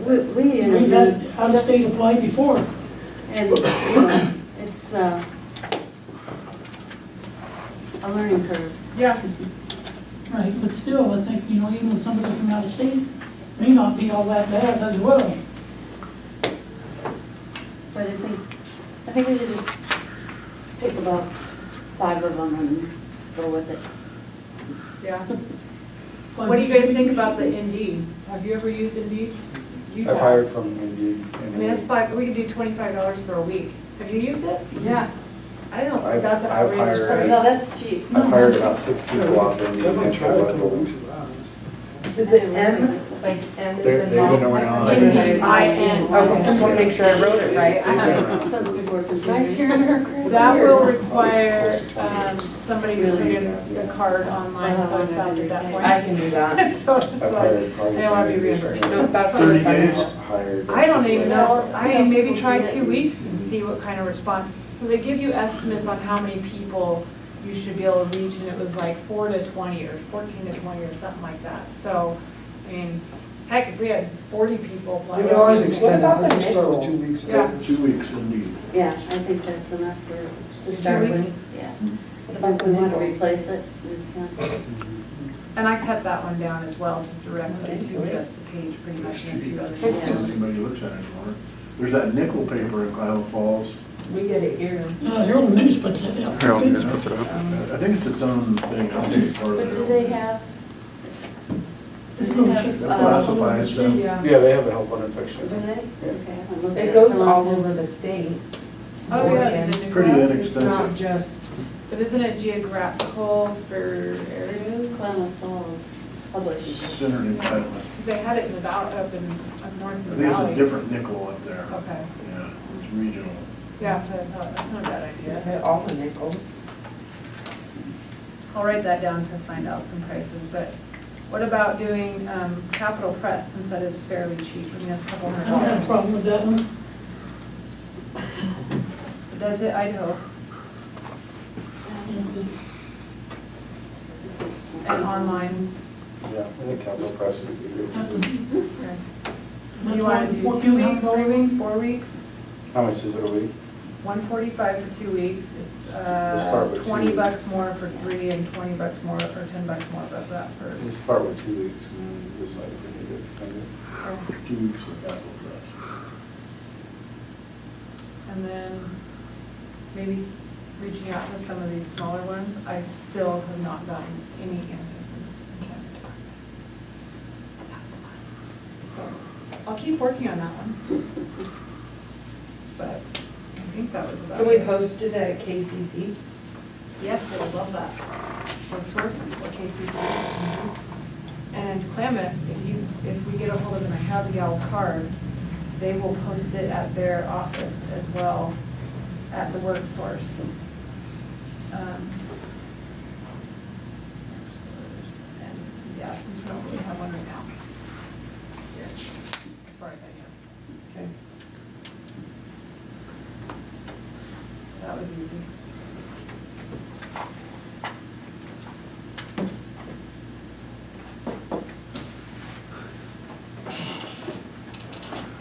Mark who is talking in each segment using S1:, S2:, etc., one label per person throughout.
S1: we, we
S2: We've had
S1: interviewed,
S2: out-of-state apply before.
S1: and, you know, it's, uh, a learning curve.
S3: Yeah.
S2: Right, but still, I think, you know, even somebody from out of state may not be all that bad as well.
S1: But I think, I think we should just pick about five of them and go with it.
S3: Yeah. What do you guys think about the Indeed? Have you ever used Indeed? You
S4: I've
S3: have.
S4: hired from Indeed.
S3: I
S4: and
S3: mean, that's five, we could do twenty-five dollars for a week. Have you used it? Yeah. I don't know,
S4: I've-
S3: if that's an
S4: I've
S3: outrageous
S4: hired-
S1: No,
S3: price.
S1: that's cheap.
S4: I've hired about six people off Indeed.
S5: I've
S4: and
S5: been
S4: they've
S5: trying
S4: got
S5: to
S4: a-
S5: lose a lot.
S6: Is it M? Like M is
S4: They-
S6: in
S4: they've been
S6: dog?
S4: around.
S3: Indeed, I N.
S6: Okay, just wanna make sure I wrote it right.
S4: They've been around.
S1: Since before
S6: Nice
S1: computers.
S6: hearing her crap.
S3: That will require, um, somebody to put in the card online, so it's not at that
S6: I
S3: point.
S6: can do that.
S3: So it's
S4: I've
S3: like,
S4: hired probably.
S3: I don't wanna be
S4: 10
S3: reimbursed.
S4: people.
S6: No, that's not
S5: Thirty
S6: funny.
S5: days.
S4: Hired.
S3: I don't even know, I mean, maybe try
S6: We'll see
S3: two
S6: it.
S3: weeks and see what kind of response. So they give you estimates on how many people you should be able to reach, and it was like four to twenty, or fourteen to twenty, or something like that. So, I mean, heck, if we had forty people.
S5: You can always extend it,
S6: What about
S5: let's just start with
S6: the
S5: two weeks.
S3: Yeah.
S5: Two weeks indeed.
S1: Yeah, I think that's enough for, to
S6: Two
S1: start
S6: weeks.
S1: with, yeah. But we want to replace it. we can.
S3: And I cut that one down as well to directly to
S6: Okay.
S3: just the page, pretty much, and a few other
S1: Yeah.
S3: things.
S5: Anybody looks at it anymore. There's that nickel paper in Cloud Falls.
S6: We get it here. um,
S2: Uh, Herald News puts it out.
S7: Harold News puts it up.
S5: I think it's its own thing. I don't think it's part of
S1: But do
S5: their-
S1: they have? Do
S2: They
S1: they
S2: don't
S1: have,
S2: ship
S5: They're
S2: it.
S1: uh,
S5: classified, so-
S3: Yeah.
S4: Yeah, they have a help wanted
S1: do
S4: section.
S1: they? Okay, I'm looking at
S6: It goes
S1: them.
S6: all over the state.
S3: Oh, yeah.
S6: Oregon.
S3: the new
S5: Pretty
S3: ones.
S6: It's not just,
S3: But isn't it geographical for
S1: This
S3: areas?
S1: Klamath Falls published.
S5: Centered in Cloud. I
S3: Because they had it in the valley, up in, up north in the
S5: think it's
S3: valley.
S5: a different nickel up there.
S3: Okay,
S5: Yeah, it's regional.
S3: yeah, that's what I thought, that's not a bad idea.
S6: yeah, all the nickels.
S3: I'll write that down to find out some prices, but what about doing um, Capital Press, since that is fairly cheap, I mean, that's a couple
S2: I don't have a
S3: hundred dollars.
S2: problem with that one.
S3: Does it Idaho and online?
S4: Yeah, I think Capital Press would be good. too.
S3: okay. You want to do two weeks, three weeks, four weeks?
S4: How much is it a week?
S3: One forty-five for two weeks, it's
S4: Let's start
S3: uh,
S4: with two
S3: twenty
S4: weeks.
S3: bucks more for three and twenty bucks more, or ten bucks more for that for.
S4: Let's start with two weeks and then decide if we need to extend it.
S5: Two weeks of Capital Press.
S3: And then maybe s- reaching out to some of these smaller ones, I still have not gotten any answer from the county department. That's fine. So, I'll keep working on that one. But I think that was about it.
S6: Can we post it at KCC?
S3: Yes, I would love that. Or source, or KCC. And in Klamath, if you, if we get a hold of them, I have the gal's card, they will post it at their office as well, at the work source. Um, and, Yeah, since we don't really have one right now. As far as I
S6: Okay.
S3: know, that was easy.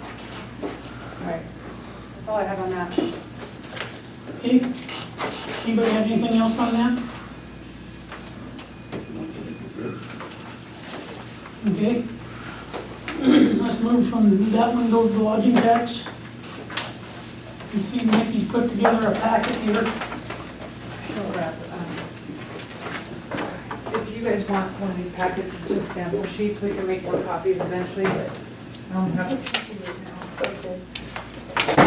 S3: All right, that's all I have on that.
S2: Okay, anybody have anything else on that? Okay. Let's move from that one, go to the lodging tax. You see Nikki's put together a packet here.
S3: So, uh, um, If you guys want one of these packets, it's just sample sheets, we can make more copies eventually, but um, I don't have a copy right now. It's okay.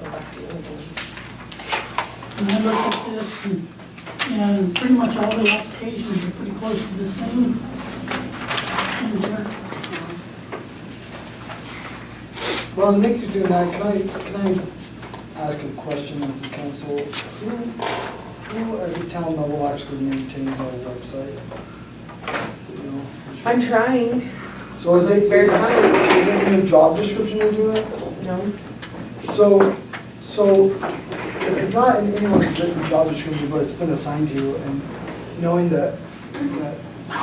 S6: Well, that's the only one.
S2: And I looked at this, and- and pretty much all the applications are pretty close to the same. And uh, they're-
S8: Well, Nick is doing that, can I, can I ask a question of the council? Who, who at the town level actually maintains our website? You know?
S6: I'm trying.
S8: So is
S6: It's
S8: it,
S6: very
S8: is
S6: funny.
S8: it in the job description to do it?
S6: No?
S8: So, so if it's not in anyone's written job description, but it's been assigned to you, and knowing that, that